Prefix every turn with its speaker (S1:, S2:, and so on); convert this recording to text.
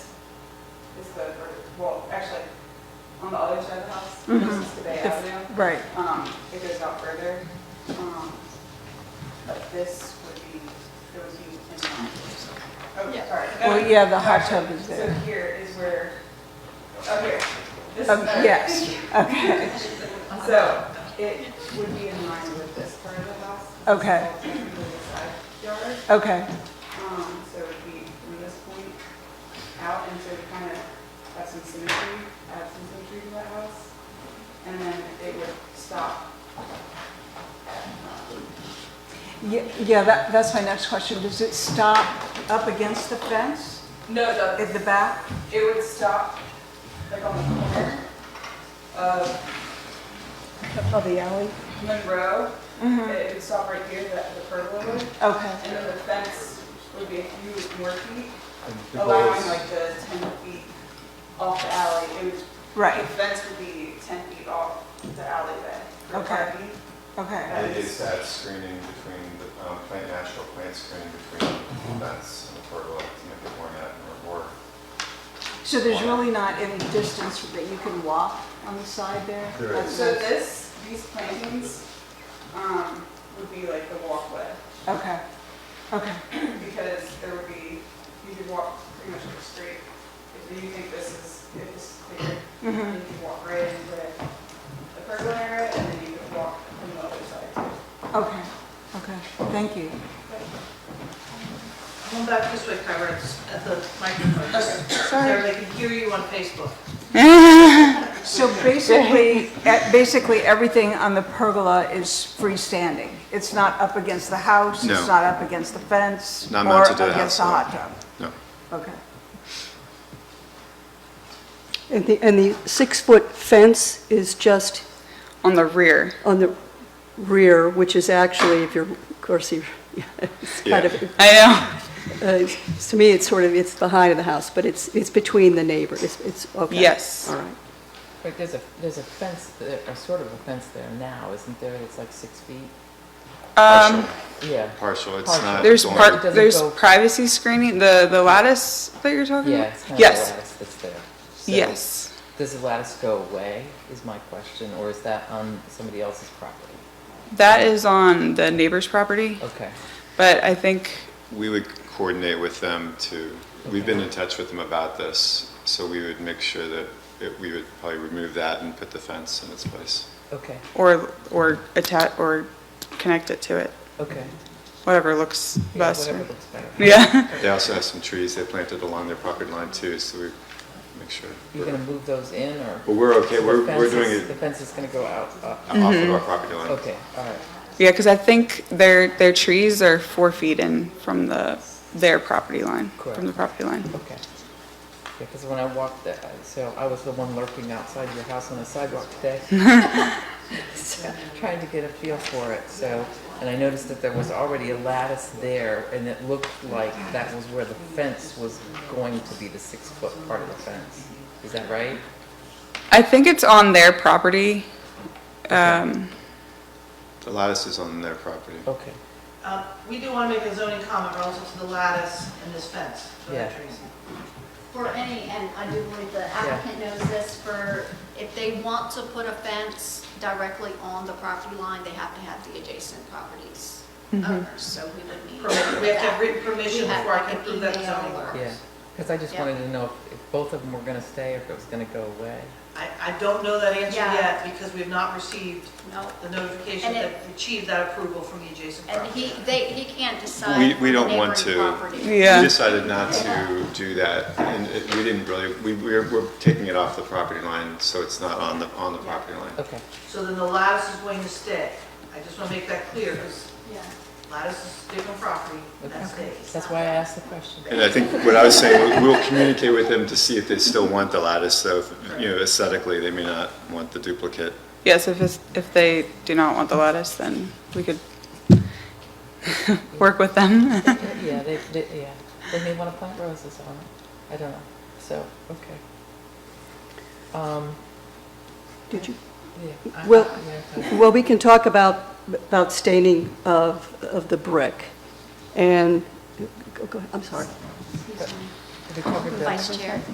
S1: is the, well, actually, on the other side of the house,
S2: Mm-hmm.
S1: this is the Bay
S2: The f-
S1: Avenue.
S2: Right,
S1: Um, it goes out further. Um, But this would be, it would be in line. Oh,
S3: Yeah.
S1: sorry.
S2: well, yeah, the hot
S1: Gotcha.
S2: tub is
S1: So
S2: there.
S1: here is where, oh, here. This is
S2: Um,
S1: the-
S2: yes, okay,
S1: So it would be in line with this part of the house.
S2: Okay.
S1: It's all technically the side yard.
S2: okay,
S1: Um, so it would be from this point out, and so it kind of have some symmetry, add some symmetry to the house. And then it would stop.
S2: Ye- yeah, that, that's my next question, does it stop up against the fence
S1: No, it doesn't.
S2: at the back?
S1: It would stop like on the corner of
S2: Of the alley?
S1: Monroe.
S2: Mm-hmm,
S1: It would stop right here, the, the pergola would,
S2: okay,
S1: and then the fence would be a few more feet,
S4: And the goal
S1: allowing
S4: is-
S1: like the ten feet off the alley. It would, the
S2: right,
S1: fence would be ten feet off the alleyway. for
S2: Okay.
S1: parking.
S2: okay,
S4: It is that screening between, the um, plant, natural plant screening between the fence and the pergola to make it more natural, or
S2: so there's really not any distance that you can walk on the side there?
S4: There is.
S1: So this, these plantings, um, would be like the walkway,
S2: Okay, okay,
S1: because there would be, you could walk pretty much like straight. If you think this is, if this is clear,
S2: mm-hmm,
S1: you could walk right into the pergola area, and then you could walk from the other side too.
S2: okay, okay, thank you.
S3: Come back this way, Kyra, it's at the microphone. So
S2: Sorry.
S3: they can hear you on Facebook.
S2: So basically, eh, basically, everything on the pergola is freestanding. It's not up against the house,
S4: No.
S2: it's not up against the fence,
S4: Not mounted to
S2: Or
S4: the
S2: against
S4: house,
S2: the
S4: no.
S2: hot tub.
S4: No.
S2: Okay.
S5: And the, and the six-foot fence is just
S1: On the rear.
S5: on the rear, which is actually, if you're, of course, you're, it's kind of,
S1: I
S5: uh, it's- to me, it's sort of, it's the height of the house, but it's, it's between the neighbors, it's, it's, okay.
S1: Yes.
S5: All right.
S6: Wait, there's a, there's a fence, there- a sort of a fence there now, isn't there, that's like six feet?
S4: partial,
S6: Yeah,
S1: Uh-huh.
S4: partial, it's
S6: Um, partial.
S4: not.
S1: Um, There's
S4: going-
S6: part-
S1: part,
S6: doesn't
S1: there's
S6: go-
S1: privacy screening, the, the lattice that you're talking
S6: yeah,
S1: about?
S6: it's kind of a
S1: Yes.
S6: lattice that's there. So,
S1: Yes.
S6: Does the lattice go away, is my question, or is that on somebody else's property?
S1: That is on the neighbor's property,
S6: Okay,
S1: but I think,
S4: We would coordinate with them to, we've been in touch with them about this, so we would make sure that it- we would probably remove that and put the fence in its place.
S6: okay,
S1: or, or attach, or connect it to it,
S6: okay.
S1: whatever looks
S6: Yeah,
S1: best.
S6: Whatever looks better.
S1: Yeah.
S4: They also have some trees they planted along their property line too, so we make sure.
S6: You're gonna move those in, or?
S4: But we're okay,
S6: the
S4: we're,
S6: fence
S4: we're
S6: is-
S4: doing
S6: The
S4: it
S6: fence is gonna go out, up.
S4: off of our property line.
S6: Mm-hmm. okay, all right,
S1: Yeah, because I think their, their trees are four feet in from the, their property line, from the
S6: Correct.
S1: property line.
S6: okay. Yeah, because when I walked, the- so I was the one lurking outside your house on the sidewalk today. So, Trying to get a feel for it, so, and I noticed that there was already a lattice there, and it looked like that was where the fence was going to be, the six-foot part of the fence. Is that right?
S1: I think it's on their property. Um,
S4: The lattice is on their property.
S6: Okay,
S3: Uh, We do want to make a zoning comment relative to the lattice and this fence for that
S6: Yeah.
S3: reason.
S7: For any, and I do believe the applicant knows this, for if they want to put a fence directly on the property line, they have to have the adjacent properties owners, so we would need.
S3: Permission. We have to have written
S7: We
S3: permission
S7: have
S3: before I
S7: like
S3: can
S7: an
S3: prove that
S7: email
S3: zoning
S7: or-
S3: works.
S6: yeah, because I just
S7: Yeah.
S6: wanted to know if- if both of them were gonna stay, or if it was gonna go away.
S3: I, I don't know that answer
S7: Yeah.
S3: yet because we've not received
S7: No,
S3: the notification
S7: And
S3: that
S7: it-
S3: achieved that approval from E the adjacent
S7: and
S3: property.
S7: he, they, he can't decide.
S4: We- we
S7: on
S4: don't want
S7: neighboring
S4: to.
S7: property.
S1: Yeah.
S4: We decided not to do that, and it- we didn't really, we, we're, we're taking it off the property line, so it's not on the, on the property line.
S6: Okay,
S3: So then the lattice is going to stay. I just want to make that clear because
S7: Yeah.
S3: lattice is different property, and that
S6: okay,
S3: stays.
S6: that's why I asked the question.
S4: And I think what I was saying, we- we'll communicate with them to see if they still want the lattice, so, if, you know, aesthetically, they may not want the duplicate.
S1: Yes, if it's, if they do not want the lattice, then we could work with them.
S6: Yeah, they, they, yeah, they may wanna plant roses on it, I don't know, so, okay. Um,
S5: Did you,
S6: yeah. I-
S5: Well,
S6: yeah, I-
S5: well, we can talk about, about staining of, of the brick, and, go, go, ahead. I'm sorry.
S6: Have you covered that?
S7: Vice Chair.